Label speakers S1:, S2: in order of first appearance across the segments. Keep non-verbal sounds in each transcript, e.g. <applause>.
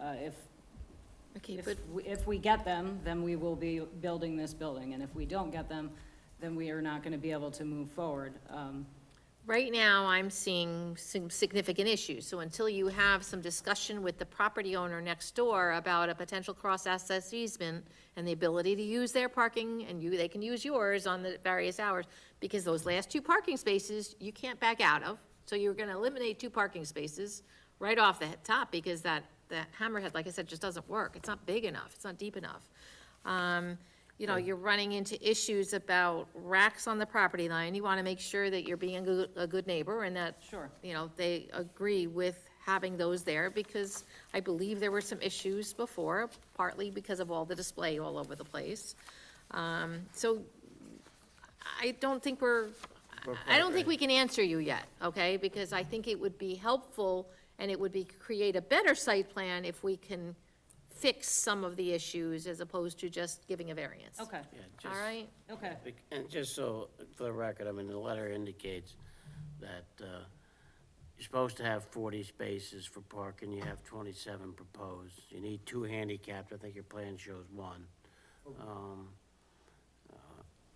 S1: uh, if,
S2: Okay, but,
S1: if, we- if we get them, then we will be building this building, and if we don't get them, then we are not gonna be able to move forward. Um,
S2: Right now, I'm seeing some significant issues, so until you have some discussion with the property owner next door about a potential cross-access easement and the ability to use their parking, and you, they can use yours on the various hours, because those last two parking spaces, you can't back out of, so you're gonna eliminate two parking spaces right off the top, because that, that hammerhead, like I said, just doesn't work, it's not big enough, it's not deep enough. Um, you know, you're running into issues about racks on the property line. You want to make sure that you're being a good, a good neighbor and that.
S1: Sure.
S2: You know, they agree with having those there because I believe there were some issues before, partly because of all the display all over the place. Um, so I don't think we're, I I don't think we can answer you yet, okay? Because I think it would be helpful and it would be, create a better site plan if we can fix some of the issues as opposed to just giving a variance.
S1: Okay,
S3: Yeah,
S2: All
S3: just-
S2: right,
S1: okay,
S3: And just so, for the record, I mean, the letter indicates that uh, you're supposed to have 40 spaces for parking, you have 27 proposed. You need two handicapped, I think your plan shows one. Um, uh,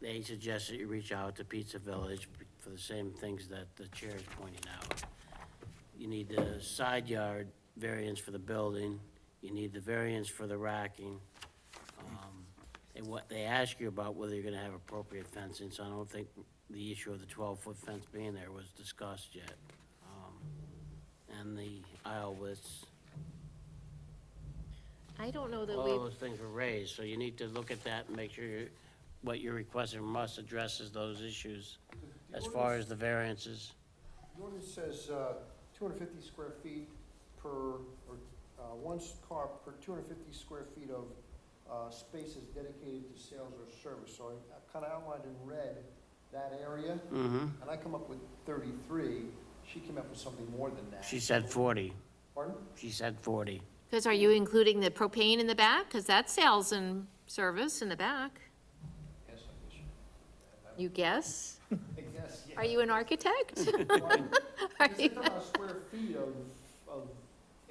S3: They suggest that you reach out to Pizza Village for the same things that the chair is pointing out. You need the side yard variance for the building, you need the variance for the racking. Um, And what, they ask you about whether you're gonna have appropriate fencing, so I don't think the issue of the twelve-foot fence being there was discussed yet. Um, And the aisle widths,
S2: I don't know that
S3: all
S2: we,
S3: those things were raised, so you need to look at that and make sure you- what you're requesting from us addresses those issues as far as the variances.
S4: The ordinance says uh, 250 square feet per, or uh, one s- car per 250 square feet of uh, spaces dedicated to sales or service. So I kind of outlined in red that area,
S3: Mm-hmm.
S4: and I come up with 33. She came up with something more than that.
S3: She said forty,
S4: Pardon?
S3: she said forty.
S2: because are you including the propane in the back? Because that's sales and service in the back.
S4: Yes,
S2: You guess?
S4: I guess. I guess,
S3: <laughs>
S4: yeah.
S2: Are you an architect? Are
S4: Because
S2: you-
S4: they're talking about square feet of, of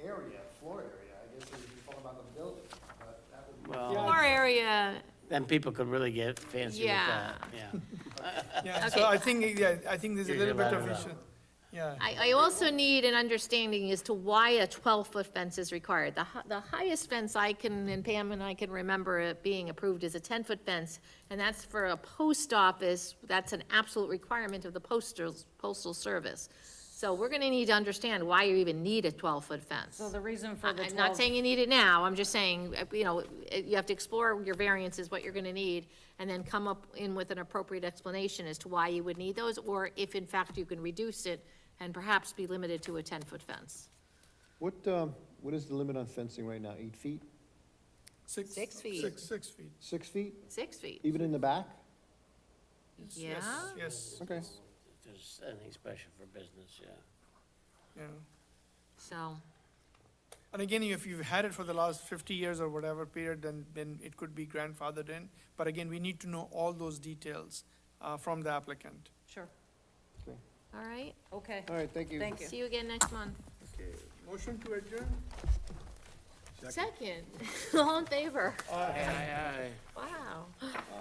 S4: area, floor area. I guess you're talking about the building, but that would be.
S3: Well,
S2: Our area,
S3: then people could really get fancy with
S2: Yeah.
S3: that, yeah.
S5: Yeah,
S2: Okay.
S5: so I think, yeah, I think there's a
S3: Here's
S5: little
S3: your
S5: bit of
S3: ladder.
S5: issue. Yeah,
S2: I, I also need an understanding as to why a twelve-foot fence is required. The, hi- the highest fence I can, and Pam and I can remember it being approved is a ten-foot fence, and that's for a post office, that's an absolute requirement of the postal, postal service. So we're gonna need to understand why you even need a twelve-foot fence.
S1: so the reason for the
S2: I- I'm not
S1: 12
S2: saying you need it now, I'm just saying, uh, you know, uh, you have to explore your variances, what you're gonna need, and then come up in with an appropriate explanation as to why you would need those, or if in fact you can reduce it and perhaps be limited to a ten-foot fence.
S4: What, um, what is the limit on fencing right now? Eight feet?
S5: six,
S2: Six feet.
S5: six, six feet.
S4: Six feet?
S2: Six feet,
S4: Even in the back?
S2: yeah?
S5: Yes, Yes,
S4: Okay.
S3: If there's anything special for business, yeah.
S5: yeah.
S2: So,
S5: And again, if you've had it for the last fifty years or whatever period, then, then it could be grandfathered in. But again, we need to know all those details, uh, from the applicant.
S1: Sure,
S2: all right,
S1: okay,
S4: All right, thank you.
S1: thank you.
S2: see you again next month.
S5: Motion to adjourn?
S2: Second, <laughs> all in favor,
S3: Aye, aye, aye.
S2: wow.